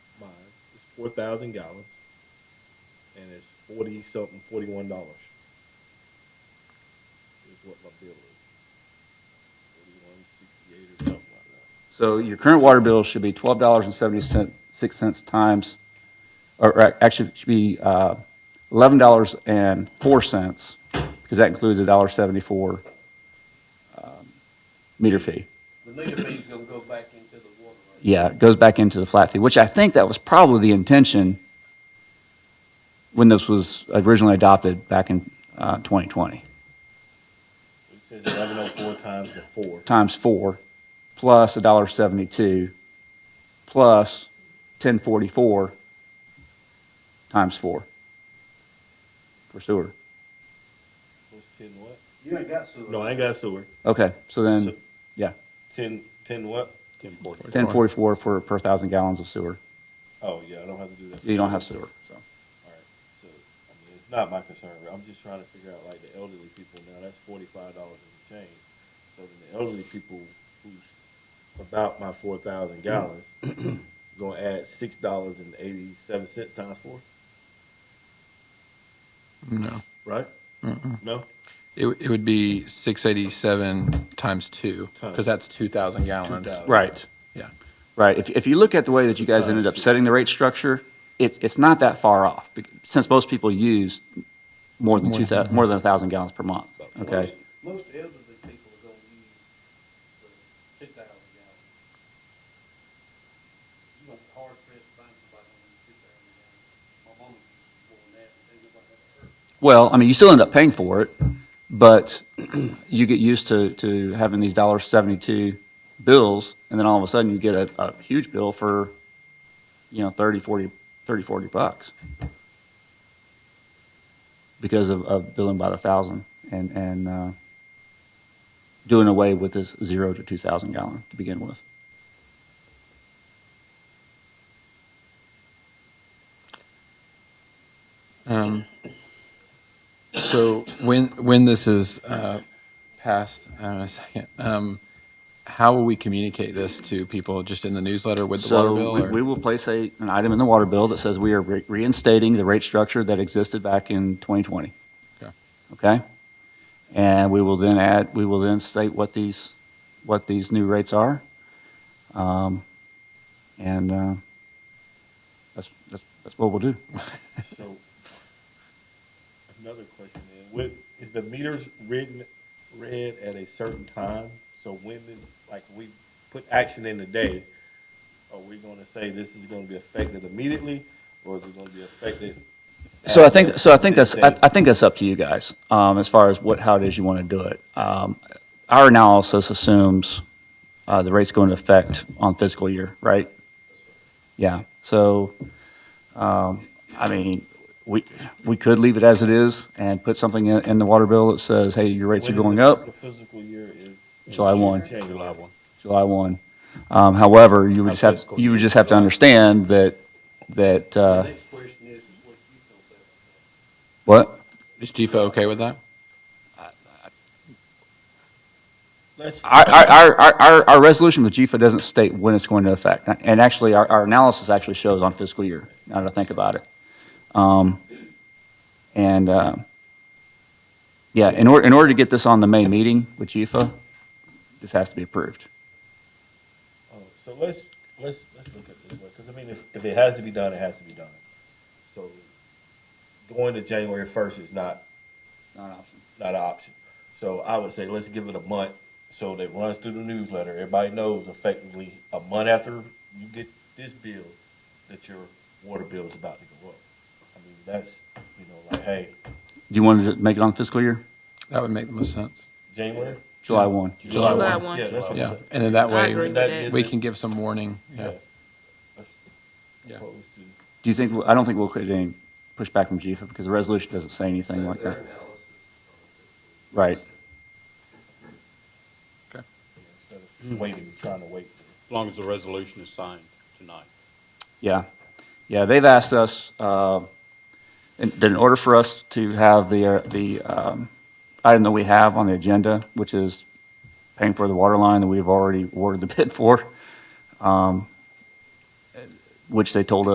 four thousand gallons, and it's forty something, forty one dollars. Is what my bill is. Forty one sixty eight or something like that. So your current water bill should be twelve dollars and seventy-six cents times, or or actually, it should be uh, eleven dollars and four cents, because that includes a dollar seventy-four um, meter fee. The meter fee's gonna go back into the water rate. Yeah, it goes back into the flat fee, which I think that was probably the intention when this was originally adopted back in uh, 2020, It says eleven oh four times the four. times four, plus a dollar seventy-two, plus 1044 times four for sewer. What's ten what? You ain't got sewer. No, I ain't got sewer. Okay, so then, So- yeah, Ten, ten what? Ten forty. 1044 for per thousand gallons of sewer. Oh, yeah, I don't have to do that. for You don't sure. have sewer, so. All right, so, I mean, it's not my concern, but I'm just trying to figure out, like, the elderly people now, that's forty-five dollars in change. So then the elderly people who's about my four thousand gallons, gonna add six dollars and eighty-seven cents times four, No. right? No? It, w- it would be 687 times two, because Times. that's 2,000 gallons. 2,000. Right. Yeah. Right. If, if you look at the way that you guys ended up setting the rate structure, it's, it's not that far off bec- since most people use more than two thou, more than a thousand gallons per month. Okay. Most- Most elderly people are gonna use the two thousand gallons. You gonna be hard pressed to find somebody who uses two thousand gallons. My mama uses more than that, but they look like that hurt. Well, I mean, you still end up paying for it, but you get used to, to having these dollar seventy-two bills and then all of a sudden you get a, a huge bill for, you know, 30, 40, 30, 40 bucks. Because of, of billing by the thousand and, and, uh, doing away with this zero to two thousand gallon to begin with. Um, so when when this is uh, passed, uh, a second, um, how will we communicate this to people? Just in the newsletter with the water bill? So or- we- we will place a, an item in the water bill that says we are re- reinstating the rate structure that existed back in 2020. Okay. Okay? And we will then add, we will then state what these, what these new rates are. Um, And uh, that's, that's, that's what we'll do. So, another question is, what, is the meters written, read at a certain time? So when this, like, we put action in today, are we gonna say this is gonna be affected immediately, or is it gonna be affected? So I think, so I think This that's, I, date? I think that's up to you guys, um, as far as what, how it is you want to do it. Um, our analysis assumes, uh, the rate's going to affect on fiscal year, right? Yeah, so, um, I mean, we, we could leave it as it is and put something in, in the water bill that says, hey, your rates are When is going the- up, The physical year is. July 1. Change July one. July one. Um, however, you would just have, you would just have to understand that, that, The uh, next question is, is what you feel about that. what? is GFO okay with that? Let's, oh, Our, our, our, our, our resolution with GFA doesn't state when it's going to affect. And actually, our, our analysis actually shows on fiscal year, now that I think about it. Um, and, uh, yeah, in order, in order to get this on the May meeting with GFA, this has to be approved. oh, so let's, let's, let's look at it this way, cause I mean, if, if it has to be done, it has to be done. So going to January first is not Not an option. not an option. So I would say let's give it a month so that it runs through the newsletter. Everybody knows effectively a month after you get this bill that your water bill is about to go up. I mean, that's, you know, like, hey, Do you want to make it on fiscal year? That would make the most sense. January? July one. July July one. one. Yeah, that's what I'm Yeah, saying. and then that I way agree with That that. is- we can give some warning. Yeah. That's Yeah. opposed to- Do you think, I don't think we'll get any pushback from GFA because the resolution doesn't say anything like that. Right. yeah, Instead of waiting, trying to wait. for- As long as the resolution is signed tonight. Yeah, yeah, they've asked us, uh, in, that in order for us to have the, uh, the, um, item that we have on the agenda, which is paying for the water line that we've already awarded the bid for, um, which they told us.